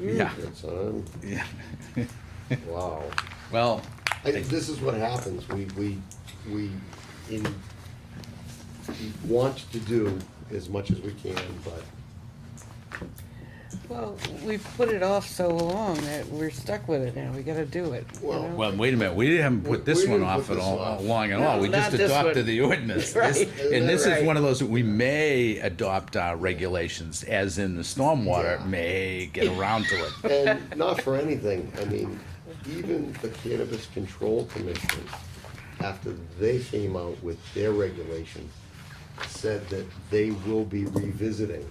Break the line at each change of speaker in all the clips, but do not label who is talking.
Yeah.
Good son.
Yeah.
Wow.
Well,
I, this is what happens. We, we, we, in, we want to do as much as we can, but
Well, we've put it off so long that we're stuck with it now, we gotta do it, you
Well-
know?
well, wait a minute, we haven't
We-
put this
we
one
didn't
off
put
at
this
all,
off.
long at
No,
all, we
not
just
this
adopted
one.
the ordinance.
Right.
This- And this is
Right.
one of those, that we may adopt our regulations, as in the stormwater
Yeah.
may get around to it.
And not for anything, I mean, even the Cannabis Control Commission, after they came out with their regulation, said that they will be revisiting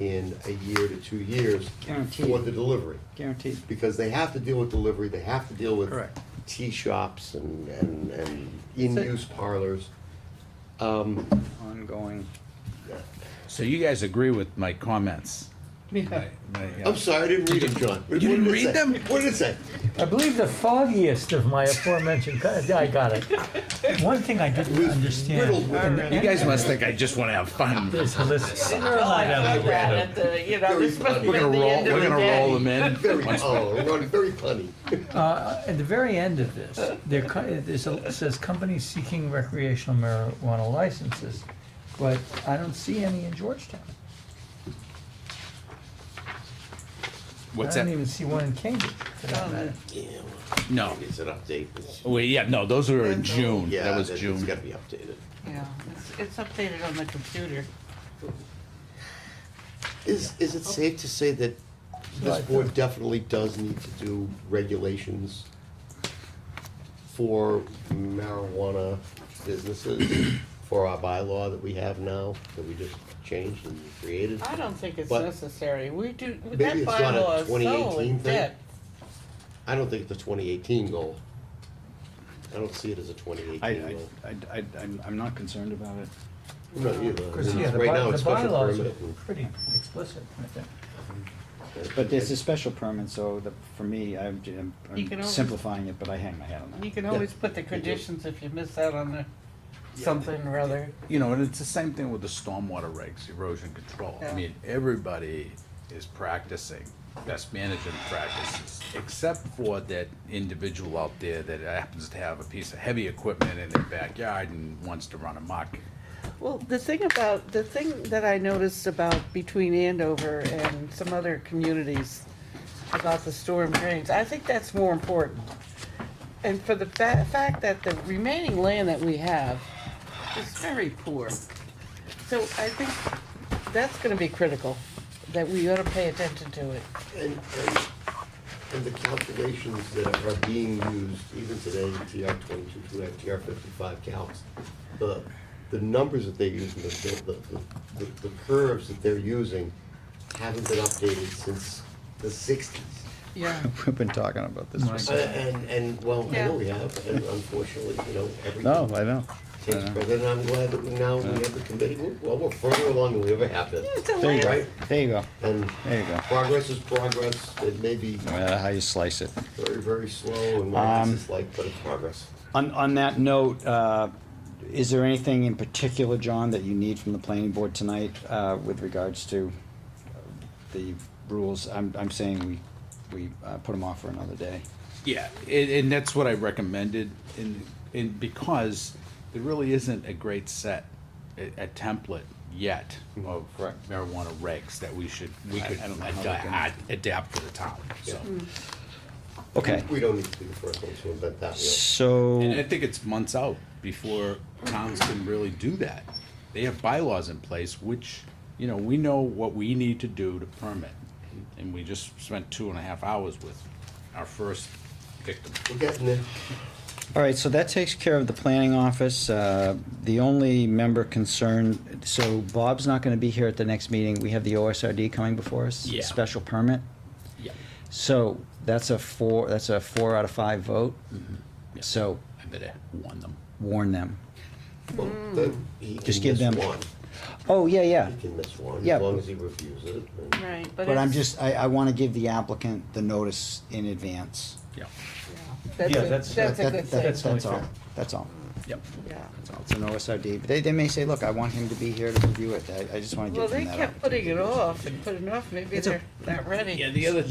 in a year to two years for
Guaranteed.
the delivery.
Guaranteed.
Because they have to deal with delivery, they have to deal with
Correct.
tea shops and, and, and in-use parlors.
Ongoing.
So you guys agree with my comments?
I
My, uh,
I'm sorry, I didn't read them, John. What
didn't
did it
read
say?
them?
What did it say?
I believe the foggiest of my aforementioned, co- I got it. One thing I
It
didn't
was riddled
understand
with-
You guys must think I just wanna have fun.
is the list.
Well, I heard that at the, you know, this must be
We're
at the
gonna roll,
end of
we're
the
gonna roll
day.
them in.
Very, oh, Ron, very punny.
Uh, At the very end of this, there co- there's a- it says companies seeking recreational marijuana licenses, but I don't see any in Georgetown. I
What's
don't
that?
even see one in Cambridge, for
Oh,
that matter.
Yeah,
No,
well, it's an update. It's-
well, yeah, no, those were in June,
Yeah,
that was
it's-
June.
It's gotta be updated.
Yeah, it's- it's updated on the computer.
Is, is it safe to say that this
Right.
board definitely does need to do regulations for marijuana businesses, for our bylaw that we have now, that we just changed and created?
I don't think it's
But-
necessary, we do, that
Maybe it's not a
bylaw is so
2018
in
thing.
depth.
I don't think the twenty eighteen goal. I don't see it as a twenty
I,
eighteen goal.
I, I, I'm- I'm not concerned about it.
I'm not either.
Because, yeah, the
Right now,
by- the
it's special
bylaws are
permit and-
pretty explicit, I think.
But there's a special permit, so the, for me, I'm, I'm-
You can
I'm
always-
simplifying it, but I hang my hat on
You
that.
can always put the conditions if you miss out on the, something or other.
You know, and it's the same thing with the stormwater regs, erosion control. I
Yeah.
mean, everybody is practicing best management practices, except for that individual out there that happens to have a piece of heavy equipment in their backyard and wants to run amok.
Well, the thing about, the thing that I noticed about between Andover and some other communities about the storm drains, I think that's more important. And for the fa- fact that the remaining land that we have is very poor. So I think that's gonna be critical, that we ought to pay attention to it.
And, and, and the calculations that are being used even today, TR twenty-two, two, TR fifty-five counts, the, the numbers that they use, and the, the, the- the, the curves that they're using haven't been updated since the sixties. Uh,
Yeah.
We've been talking about this. for-
And, and, well, I
Yeah.
know we have, and unfortunately, you know,
No, I
everything
know. I
takes
know.
precedent, and I'm glad that we now, we have the committee, We're- well, we're further along than we ever have been.
It's a
There you
land,
go, there you go.
And
There you go.
progress is progress, it may be
No matter Uh, how you slice it.
Very, very slow and what
Um,
this is like, but it's progress.
On, on that note, uh, is there anything in particular, John, that you need from the planning board tonight, uh, with regards to uh, the rules? I'm, I'm saying we, we, uh, put them off for another day.
Yeah, and, and that's what I recommended, and, and because there really isn't a great set, a, a template yet of
Mm-hmm. Correct.
marijuana regs that we should, we
I-
could
I don't know how they
ad- adapt to the town, so.
Okay,
We don't need to be the first ones to invent that wheel.
so.
And I think it's months out before towns can really do that. They have bylaws in place, which, you know, we know what we need to do to permit. And we just spent two and a half hours with our first victim.
We're getting there.
All right, so that takes care of the planning office. Uh, The only member concerned, so Bob's not going to be here at the next meeting. We have the OSRD coming before us.
Yeah.
Special permit.
Yeah.
So that's a four, that's a four out of five vote.
Yeah.
So
I better warn them.
warn them.
Well, that- he can
Just give
miss
them-
one.
Oh, yeah, yeah.
He can miss one,
Yeah.
as long as he reviews it. and-
right, but
But I'm
it's-
just, I, I want to give the applicant the notice in advance.
Yeah.
That's
Yeah,
a,
that's-
that's a
That-
good
that-
thing,
that's- only
That's all,
fair.
that's all.
Yep.
yeah.
That's all. It's an OSRD. But They, they may say, look, I want him to be here to review it. I, I just want to
Well,
give them
they
that
kept putting
opportunity.
it off and putting it off, maybe
It's a-
they're not ready.
Yeah, the other